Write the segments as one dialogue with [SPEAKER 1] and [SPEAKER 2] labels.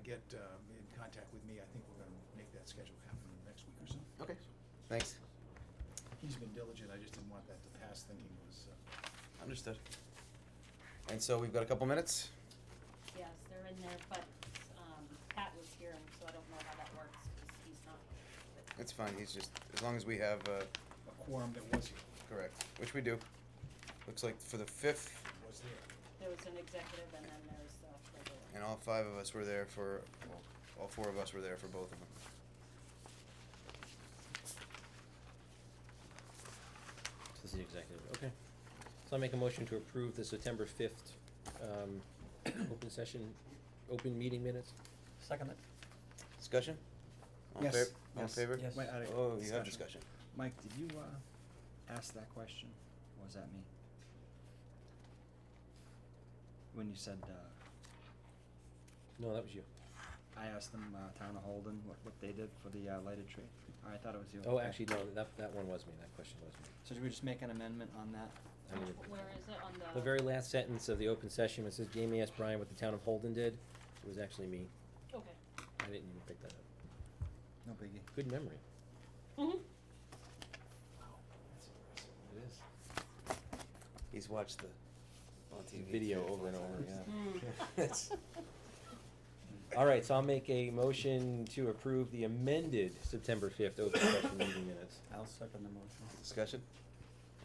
[SPEAKER 1] get uh, in contact with me, I think we're gonna make that schedule happen in the next week or so.
[SPEAKER 2] Okay. Thanks.
[SPEAKER 1] He's been diligent, I just didn't want that to pass thinking it was, uh,
[SPEAKER 2] Understood. And so we've got a couple minutes.
[SPEAKER 3] Yes, they're in there, but, um, Pat was here, and so I don't know how that works, 'cause he's not.
[SPEAKER 2] It's fine. He's just as long as we have uh,
[SPEAKER 1] a quorum that was,
[SPEAKER 2] correct, which we do. Looks like for the fifth,
[SPEAKER 1] was there.
[SPEAKER 3] There was an executive and then there's the regular.
[SPEAKER 2] and all five of us were there for well, all four of us were there for both of them.
[SPEAKER 4] This is the executive, okay. So I make a motion to approve the September fifth, um, open session, open meeting minutes?
[SPEAKER 5] Second it.
[SPEAKER 2] Discussion. All
[SPEAKER 5] Yes.
[SPEAKER 2] In favor? All in
[SPEAKER 5] Yes.
[SPEAKER 2] favor?
[SPEAKER 5] Yes.
[SPEAKER 6] Wait, out of
[SPEAKER 2] Oh, you have discussion.
[SPEAKER 6] discussion. Mike, did you, uh, ask that question? Or was that me? When you said, uh,
[SPEAKER 4] No, that was you.
[SPEAKER 6] I asked them, uh, Town of Holden, what, what they did for the, uh, lighted tree? I thought it was you.
[SPEAKER 4] Oh, actually, no, that, that one was me, that question was me.
[SPEAKER 6] So should we just make an amendment on that?
[SPEAKER 4] I mean,
[SPEAKER 3] Which- Where is uh, it on the?
[SPEAKER 4] The very last sentence of the open session, it says Jamie asked Brian what the town of Holden did, it was actually me.
[SPEAKER 3] Okay.
[SPEAKER 4] I didn't even pick that up.
[SPEAKER 6] No biggie.
[SPEAKER 4] Good memory.
[SPEAKER 3] Mhm.
[SPEAKER 4] It is.
[SPEAKER 2] He's watched the on TV
[SPEAKER 4] Video
[SPEAKER 2] three or
[SPEAKER 4] over and
[SPEAKER 2] four
[SPEAKER 4] over,
[SPEAKER 2] times.
[SPEAKER 4] yeah.
[SPEAKER 3] Hmm.
[SPEAKER 2] It's-
[SPEAKER 4] All right, so I'll make a motion to approve the amended September fifth open session meeting minutes.
[SPEAKER 6] I'll second the motion.
[SPEAKER 2] Discussion.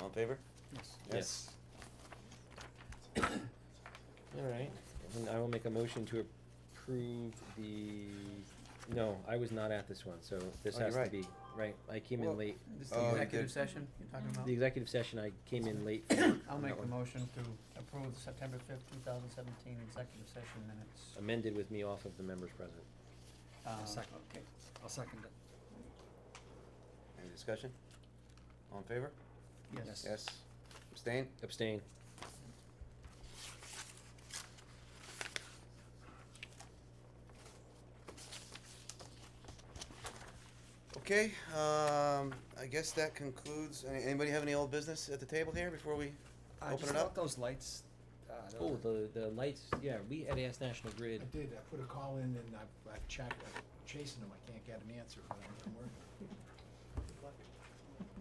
[SPEAKER 2] All in favor?
[SPEAKER 6] Yes.
[SPEAKER 4] Yes. All right, and I will make a motion to approve the, no, I was not at this one, so this
[SPEAKER 2] Oh, you're
[SPEAKER 4] has to
[SPEAKER 2] right.
[SPEAKER 4] be, right, I came in
[SPEAKER 2] Well,
[SPEAKER 4] late.
[SPEAKER 5] This
[SPEAKER 2] Oh,
[SPEAKER 5] the
[SPEAKER 2] you
[SPEAKER 5] executive
[SPEAKER 2] did.
[SPEAKER 5] session you're talking about?
[SPEAKER 4] The executive session, I came in late. for
[SPEAKER 5] I'll
[SPEAKER 2] That
[SPEAKER 5] make the
[SPEAKER 2] one.
[SPEAKER 5] motion to approve the September fifth, two thousand seventeen executive session minutes.
[SPEAKER 4] Amended with me off of the members present.
[SPEAKER 5] Uh,
[SPEAKER 6] second.
[SPEAKER 5] Okay.
[SPEAKER 6] Um, I'll second it.
[SPEAKER 2] Any discussion? All in favor?
[SPEAKER 5] Yes.
[SPEAKER 2] Yes. Abstain?
[SPEAKER 4] Abstain.
[SPEAKER 2] Okay, um, I guess that concludes, any- anybody have any old business at the table here before we
[SPEAKER 6] I
[SPEAKER 2] open
[SPEAKER 6] just
[SPEAKER 2] it
[SPEAKER 6] thought
[SPEAKER 2] up?
[SPEAKER 6] those lights, uh, those
[SPEAKER 4] Oh,
[SPEAKER 6] are-
[SPEAKER 4] the, the lights, yeah, we had asked National
[SPEAKER 1] I
[SPEAKER 4] Grid.
[SPEAKER 1] did, I put a call in and I've, I've checked, I'm chasing him, I can't get an answer, but I'm- I'm working.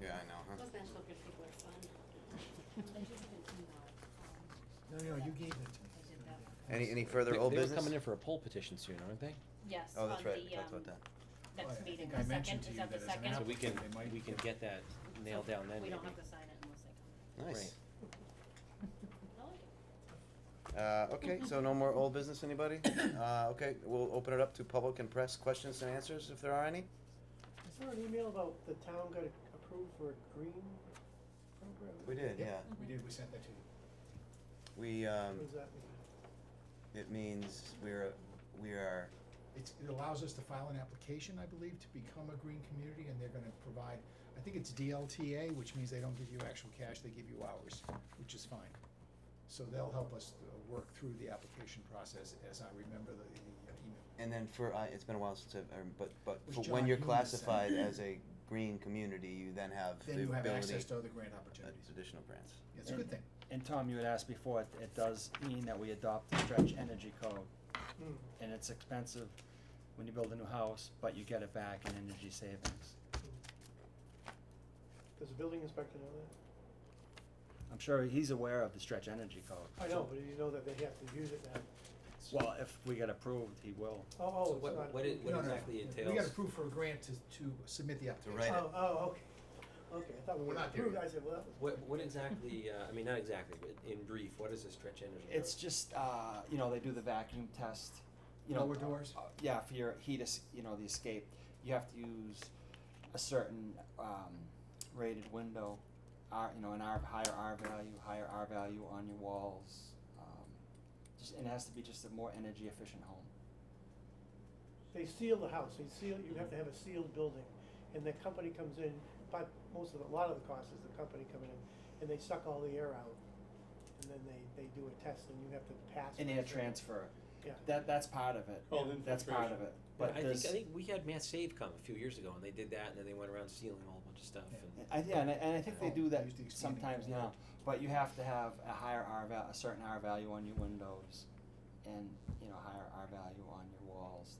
[SPEAKER 2] Yeah, I know, huh?
[SPEAKER 3] Those national good people are fun. They should have an email,
[SPEAKER 1] No,
[SPEAKER 3] um,
[SPEAKER 1] no, you gave it to me.
[SPEAKER 3] I did that.
[SPEAKER 2] Any, any further
[SPEAKER 4] They-
[SPEAKER 2] old
[SPEAKER 4] They
[SPEAKER 2] business?
[SPEAKER 4] were coming in for a poll petition soon, aren't they?
[SPEAKER 3] Yes,
[SPEAKER 2] Oh,
[SPEAKER 3] on
[SPEAKER 2] that's right, we
[SPEAKER 3] the,
[SPEAKER 2] talked
[SPEAKER 3] um,
[SPEAKER 2] about that.
[SPEAKER 1] Well, Oh, I
[SPEAKER 3] next
[SPEAKER 1] think
[SPEAKER 3] meeting,
[SPEAKER 1] I
[SPEAKER 3] the
[SPEAKER 1] mentioned
[SPEAKER 3] second,
[SPEAKER 1] to
[SPEAKER 3] is
[SPEAKER 1] you
[SPEAKER 3] that the
[SPEAKER 1] that as an
[SPEAKER 3] second?
[SPEAKER 4] So we can,
[SPEAKER 1] They might
[SPEAKER 4] we can
[SPEAKER 1] get-
[SPEAKER 4] get that nailed down then,
[SPEAKER 3] We don't
[SPEAKER 4] maybe.
[SPEAKER 3] have to sign it unless they come.
[SPEAKER 2] Nice.
[SPEAKER 3] I like it.
[SPEAKER 2] Uh, okay, so no more old business, anybody? Uh, okay, we'll open it up to public and press questions and answers if there are any.
[SPEAKER 7] Is there an email about the town got approved for a green program?
[SPEAKER 2] We did, yeah.
[SPEAKER 1] We did, we sent that to you.
[SPEAKER 2] We, um,
[SPEAKER 7] What does that mean?
[SPEAKER 2] it means we're, we are,
[SPEAKER 1] It's, it allows us to file an application, I believe, to become a green community, and they're gonna provide, I think it's DLTA, which means they don't give you actual cash, they give you hours, which is fine. So they'll help us uh, work through the application process, as I remember the, the uh, email.
[SPEAKER 2] and then for, I, it's been a while since I've, um, but, but
[SPEAKER 1] Was
[SPEAKER 2] for
[SPEAKER 1] John
[SPEAKER 2] when you're
[SPEAKER 1] Hume that said-
[SPEAKER 2] classified as a green community, you then have the
[SPEAKER 1] Then you
[SPEAKER 2] ability.
[SPEAKER 1] have access to other grant opportunities.
[SPEAKER 2] uh, Additional grants.
[SPEAKER 1] Yeah, It's a good
[SPEAKER 6] And-
[SPEAKER 1] thing.
[SPEAKER 6] And Tom, you had asked before, it, it does mean that we adopt the stretch energy code,
[SPEAKER 7] Hmm.
[SPEAKER 6] and it's expensive when you build a new house, but you get it back in energy savings.
[SPEAKER 7] Does the building inspector know that?
[SPEAKER 6] I'm sure he's aware of the stretch energy code.
[SPEAKER 7] I know, but do you know that they have to use it now?
[SPEAKER 6] Well, if we get approved, he will.
[SPEAKER 7] Oh,
[SPEAKER 4] So
[SPEAKER 7] oh, it's
[SPEAKER 4] what-
[SPEAKER 7] not.
[SPEAKER 4] what it-
[SPEAKER 7] approved.
[SPEAKER 4] what
[SPEAKER 1] No, no, no.
[SPEAKER 4] exactly
[SPEAKER 1] We got
[SPEAKER 4] entails-
[SPEAKER 1] approved for a grant to, to submit the application.
[SPEAKER 2] write it.
[SPEAKER 7] Oh, oh, okay, okay, I thought we
[SPEAKER 1] We're
[SPEAKER 7] were
[SPEAKER 1] not there
[SPEAKER 7] approved,
[SPEAKER 1] yet.
[SPEAKER 7] I said, well, that was.
[SPEAKER 4] What, what exactly, uh, I mean, not exactly, but in brief, what is a stretch energy?
[SPEAKER 6] It's just, uh, you know, they do the vacuum test, you know.
[SPEAKER 1] Lower doors?
[SPEAKER 6] uh, Yeah, for your heat, es- you know, the escape, you have to use a certain, um, rated window, R, you know, an R, higher R value, higher R value on your walls. um, Just, and it has to be just a more energy efficient home.
[SPEAKER 7] They seal the house, they seal, you have to have a sealed building, and the company comes in, but most of, the- a lot of the cost is the company coming in, and they suck all the air out, and then they, they do a test, and you have to pass.
[SPEAKER 6] And
[SPEAKER 7] it.
[SPEAKER 6] air transfer,
[SPEAKER 7] Yeah.
[SPEAKER 6] that, that's part of it,
[SPEAKER 8] Called
[SPEAKER 6] that's part of it,
[SPEAKER 4] But
[SPEAKER 6] but
[SPEAKER 4] I think,
[SPEAKER 6] there's-
[SPEAKER 4] I think we had Mass Save come a few years ago and they did that and then they went around sealing a whole bunch of stuff and.
[SPEAKER 6] I, yeah, and I, and I think they do
[SPEAKER 1] Oh,
[SPEAKER 6] that
[SPEAKER 1] used to expand it.
[SPEAKER 6] sometimes now, but you have to have a higher R val, a certain R value on your windows, and, you know, higher R value on